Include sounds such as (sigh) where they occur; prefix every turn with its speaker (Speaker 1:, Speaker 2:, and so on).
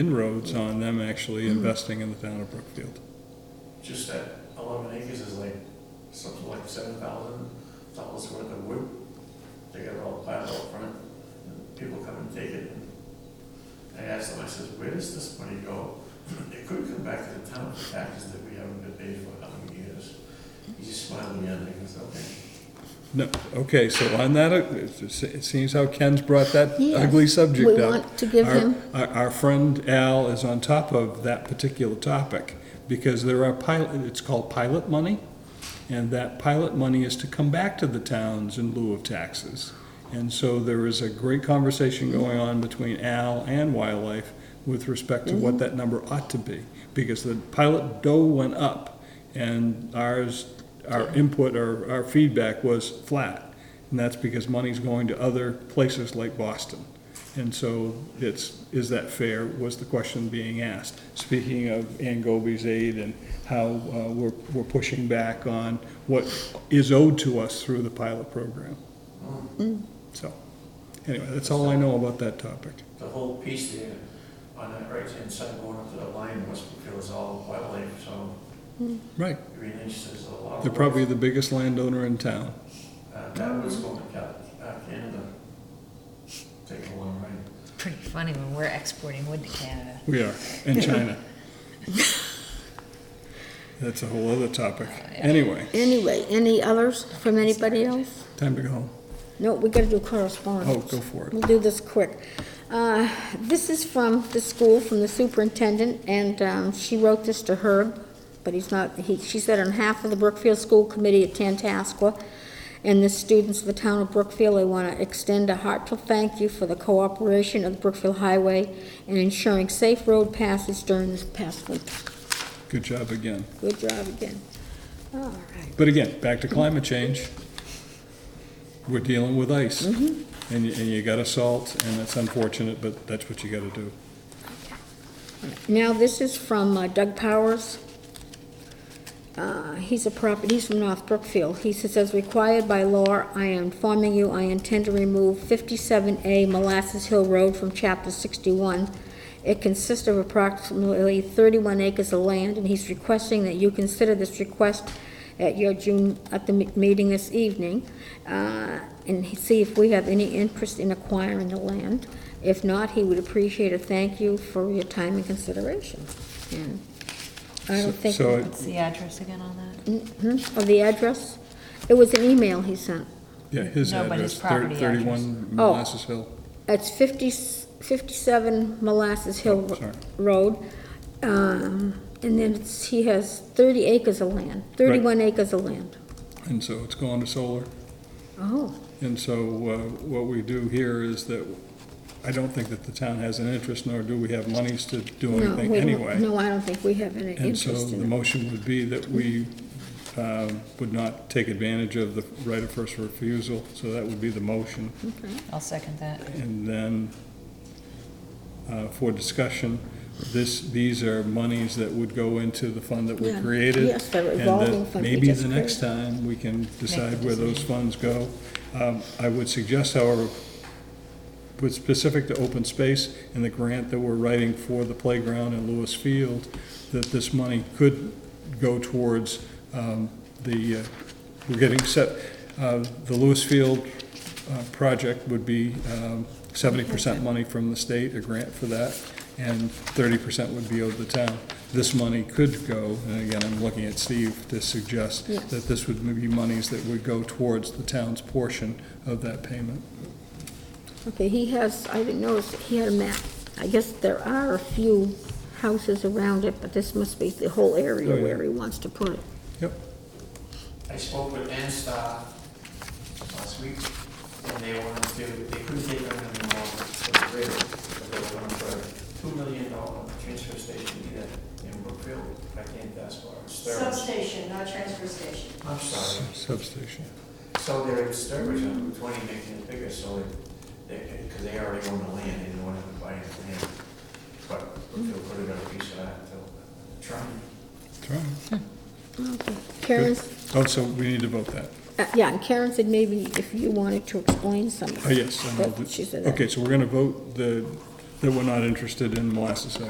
Speaker 1: inroads on them actually investing in the town of Brookfield.
Speaker 2: Just that eleven acres is like, something like seven thousand dollars worth of wood. They got it all piled up front, and people come and take it. And I asked them, I says, where does this money go? (clears throat) It could come back to the town for taxes that we haven't been paid for how many years. He just smiled at me and I said, okay.
Speaker 1: No, okay, so on that, uh, it's- it seems how Ken's brought that
Speaker 3: Yes.
Speaker 1: ugly subject up.
Speaker 3: We want to give
Speaker 1: Our-
Speaker 3: him,
Speaker 1: Our, our friend Al is on top of that particular topic, because there are pilot, it's called pilot money, and that pilot money is to come back to the towns in lieu of taxes. And so there is a great conversation going on between Al and Wildlife with respect to
Speaker 3: Mm-hmm.
Speaker 1: what that number ought to be, because the pilot dough went up, and ours, our input, or our feedback was flat. And that's because money's going to other places like Boston. And so it's, is that fair, was the question being asked. Speaking of Ann Goby's aid and how uh, we're, we're pushing back on what is owed to us through the pilot program. So, anyway, that's all I know about that topic.
Speaker 2: The whole piece there on that right-hand side going up to the line was because all wildlife, so,
Speaker 1: Right,
Speaker 2: I mean, it's just a lot of.
Speaker 1: they're
Speaker 2: work.
Speaker 1: probably the biggest landowner in town.
Speaker 2: Uh, That was going to Cal- uh, Canada. Take a long ride.
Speaker 4: It's pretty funny when we're exporting wood to Canada.
Speaker 1: We are, and China. That's a whole other topic. Anyway,
Speaker 3: anyway, any others from anybody else?
Speaker 1: time to go home.
Speaker 3: No, we gotta do correspondence.
Speaker 1: Oh, go for it.
Speaker 3: We'll do this quick. Uh, This is from the school, from the superintendent, and um, she wrote this to Herb, but he's not, he, she said on half of the Brookfield School Committee at Tantascwa and the students of the town of Brookfield, they want to extend a heartfelt thank you for the cooperation of the Brookfield Highway in ensuring safe road passes during this past winter.
Speaker 1: Good job again.
Speaker 3: Good job again. All right.
Speaker 1: But again, back to climate change. We're dealing with ice. And, you- and you gotta salt, and that's unfortunate, but that's what you gotta do.
Speaker 3: Now, this is from uh, Doug Powers. Uh, He's a property, he's from North Brookfield. He says, as required by law, I am informing you, I intend to remove 57A Molasses Hill Road from Chapter 61. It consists of approximately 31 acres of land, and he's requesting that you consider this request at your June, at the me- meeting this evening, uh, and see if we have any interest in acquiring the land. If not, he would appreciate a thank you for your time and consideration. And I don't think.
Speaker 1: So-
Speaker 4: What's the address again on that?
Speaker 3: Mhm, Of the address? It was an email he sent.
Speaker 1: Yeah, his
Speaker 4: No, but his
Speaker 1: address,
Speaker 4: property
Speaker 1: thir-
Speaker 4: address.
Speaker 1: thirty-one
Speaker 3: Oh.
Speaker 1: Molasses Hill.
Speaker 3: It's 50 57 Molasses Hill
Speaker 1: Oh, sorry.
Speaker 3: Road. Um, And then it's, he has 30 acres of land, 31 acres of land.
Speaker 1: And so it's going to solar.
Speaker 3: Oh,
Speaker 1: And so, uh, what we do here is that, I don't think that the town has an interest, nor do we have monies to do
Speaker 3: no,
Speaker 1: anything
Speaker 3: we don't,
Speaker 1: anyway.
Speaker 3: no, I don't think we have any
Speaker 1: And so
Speaker 3: interest
Speaker 1: the
Speaker 3: in it.
Speaker 1: motion would be that we, um, would not take advantage of the right of first refusal, so that would be the motion.
Speaker 4: I'll second that.
Speaker 1: And then, uh, for discussion, this, these are monies that would go into the fund that we
Speaker 3: Yeah.
Speaker 1: created.
Speaker 3: Yes, the
Speaker 1: and that
Speaker 3: revolving fund we
Speaker 1: Maybe
Speaker 3: just
Speaker 1: the next time, we can decide
Speaker 4: the
Speaker 1: where those funds go. Um, I would suggest, however, with specific to open space and the grant that we're writing for the playground in Lewis Field, that this money could go towards um, the, uh, we're getting set, uh, the Lewis Field uh, project would be um, seventy percent money from the state, a grant for that, and thirty percent would be owed the town. This money could go, and again, I'm looking at Steve to suggest
Speaker 3: Yes.
Speaker 1: that this would be monies that would go towards the town's portion of that payment.
Speaker 3: Okay, he has, I didn't notice, he had a map. I guess there are a few houses around it, but this must be the whole area
Speaker 1: Oh, yeah.
Speaker 3: where he wants to put it.
Speaker 1: Yep.
Speaker 2: I spoke with Anstar last week, and they wanted to, they couldn't take on any more for the rate, but they were going for a two million dollar transfer station either in Brookfield, I can't ask for it. Sturbridge.
Speaker 5: Substation, not transfer station.
Speaker 2: I'm sorry.
Speaker 1: Substation.
Speaker 2: So they're in Sturbridge on Route twenty, making it bigger, so they, they, because they already own the land, they didn't want to buy the land. But Brookfield could have got a piece of that, so, trying.
Speaker 1: That's right.
Speaker 3: Okay.
Speaker 1: Good.
Speaker 3: Karen's
Speaker 1: Oh, so we need to vote that.
Speaker 3: Uh, Yeah, and Karen said maybe if you wanted to explain something.
Speaker 1: Oh, yes. and I'll do-
Speaker 3: She said that.
Speaker 1: Okay, so we're going to vote the, that we're not interested in molasses Hill.